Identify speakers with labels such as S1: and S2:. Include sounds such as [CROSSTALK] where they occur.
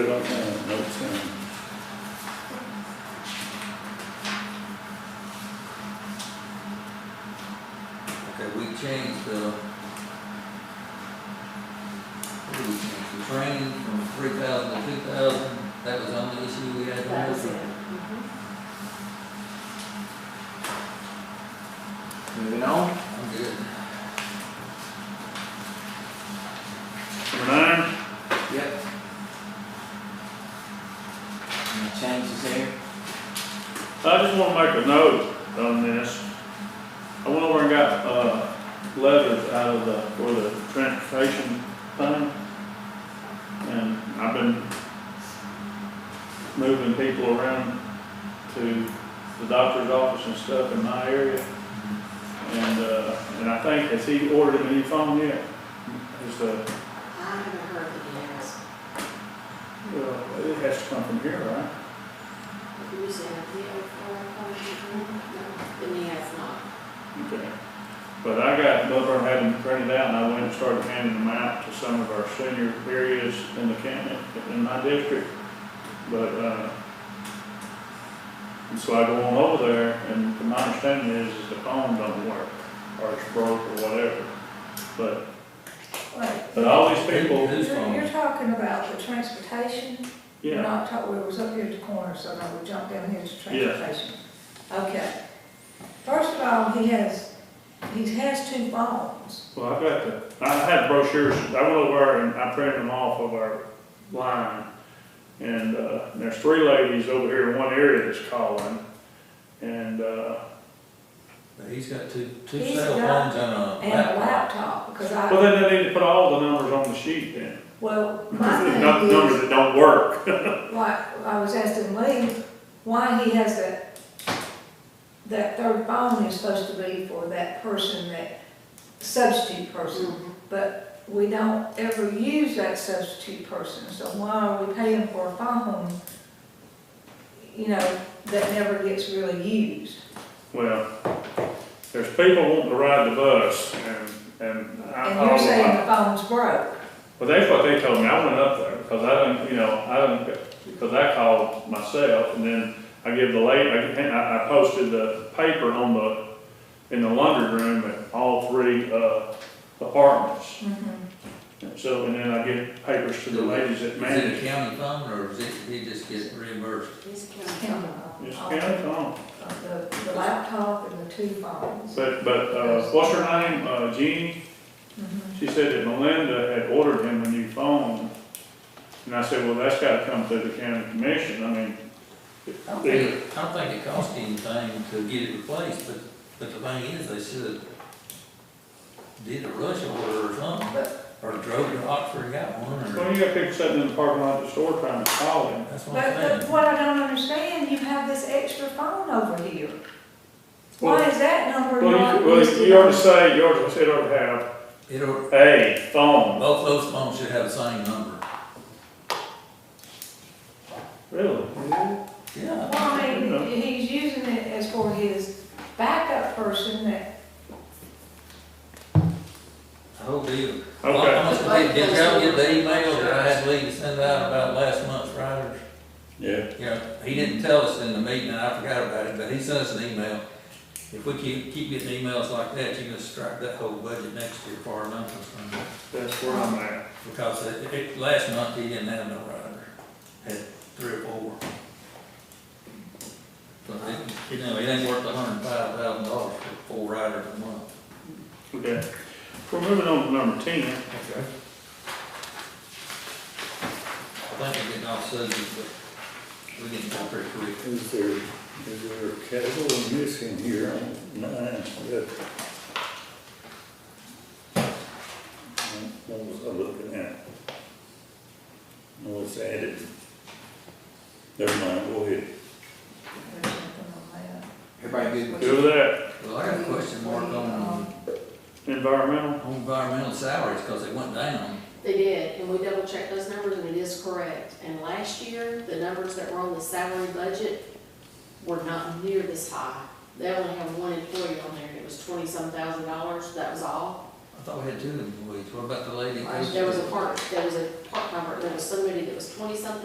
S1: off on note ten.
S2: Okay, we changed the, what did we change, the training from three thousand to two thousand, that was the only issue we had.
S3: That was it.
S4: Moving on,
S2: I'm good.
S1: Number nine,
S4: yep. Any changes there?
S1: I just wanna make a note on this. I went over and got, uh, letters out of the, for the transportation thing. And I've been moving people around to the doctor's office and stuff in my area. And, uh, and I think, has he ordered him any phone yet? uh, Is the,
S3: I haven't heard the answer.
S1: well, it has to come from here, right?
S3: He was in a deal for a hundred, and he has not.
S1: Okay. But I got, Butler had them printed out, and I went and started handing them out to some of our senior areas in the county, in my district. But, uh, and so I go on over there, and to my understanding is, is the phone don't work, or it's broke or whatever. But,
S5: Wait,
S1: but all these people,
S2: Who's
S5: you're, you're
S2: phone?
S5: talking about the transportation? We're
S1: yeah,
S5: Not talking, we was up here at the corner, so now we jumped down here to
S1: Yeah.
S5: transportation. Okay. First of all, he has, he has two phones.
S1: well, I got the, I had brochures, I went over and I printed them off of our line. And, uh, there's three ladies over here in one area that's calling, and, uh,
S2: But he's got two, two
S5: He's
S2: cell
S5: got-
S2: phones and a
S5: And a
S2: laptop.
S5: laptop, because
S1: Well,
S5: I,
S1: then they need to put all the numbers on the sheet
S5: [LAUGHS]
S1: then, [LAUGHS]
S5: well, my
S1: not the
S5: thing
S1: numbers
S5: is,
S1: that don't work.
S5: like, I was asking Lee, why he has that, that third phone is supposed to be for that person, that substitute person. But we don't ever use that substitute person, so why are we paying for a phone, you know, that never gets really used?
S1: Well, there's people wanting to ride the bus and, and I,
S5: And you're saying
S1: I,
S5: the phone's broke.
S1: well, that's what they told me, I went up there, because I didn't, you know, I didn't, because I called myself, and then I give the lady, I, I posted the paper on the, in the laundry room at all three, uh, apartments.
S5: Mm-hmm.
S1: And So, and then I give papers to the ladies that
S2: Is
S1: manage,
S2: it a county phone, or is it, he just gets reimbursed?
S3: He's
S5: It's
S3: counting.
S5: him,
S1: it's
S5: uh,
S1: county phone.
S5: The, the laptop and the two phones.
S1: But, but, uh, what's her name, uh, Jeannie, she said that Melinda had ordered him a new phone. And I said, well, that's gotta come through the county commission, I mean,
S2: I don't
S1: Yeah.
S2: think, I don't think it cost anything to get it replaced, but, but the thing is, they should have did a rush order or something,
S5: But,
S2: or drove to Oxford and got one, or,
S1: well, you got people sitting in the parking lot of the store trying to call him.
S2: that's what I'm
S5: but
S2: saying.
S5: the- what I don't understand, you have this extra phone over here. Why is that number
S1: Well,
S5: not
S1: you, well,
S5: listed?
S1: you ought to say, you ought to, it ought to have
S2: It'll,
S1: a phone,
S2: both those phones should have the same number.
S1: really?
S2: Yeah.
S5: Well, I mean, he's using it as for his backup person that,
S2: The whole deal. Well, I
S1: Okay,
S2: must have, did y'all get the email that I had Lee to send out about last month's riders?
S1: yeah,
S2: You know, he didn't tell us in the meeting, and I forgot about it, but he sent us an email. If we keep, keep getting emails like that, you're gonna strike that whole budget next year for our numbers from there.
S1: that's where I'm at.
S2: Because it, it, last month he didn't have no rider, had three or four. But it, you know, it ain't worth a hundred and five thousand dollars for four riders a month.
S1: Okay, we're moving on to number ten.
S2: Okay. I think we're getting off subject, but we're getting there pretty quick.
S1: Is there, is there a category missing here on nine? That- What was I looking at? No, it's added. Never mind, go ahead.
S5: there's something on
S4: Everybody good?
S5: that.
S1: Do that,
S2: Well, I got a question mark on,
S1: environmental,
S2: on environmental salaries, because they went down.
S3: They did, and we double checked those numbers, and it is correct. And last year, the numbers that were on the salary budget were not near this high. They only have one employee on there, and it was twenty-some thousand dollars, that was all.
S2: I thought we had two employees, what about the lady?
S3: There was a part, there was a part number, there was somebody that was twenty-something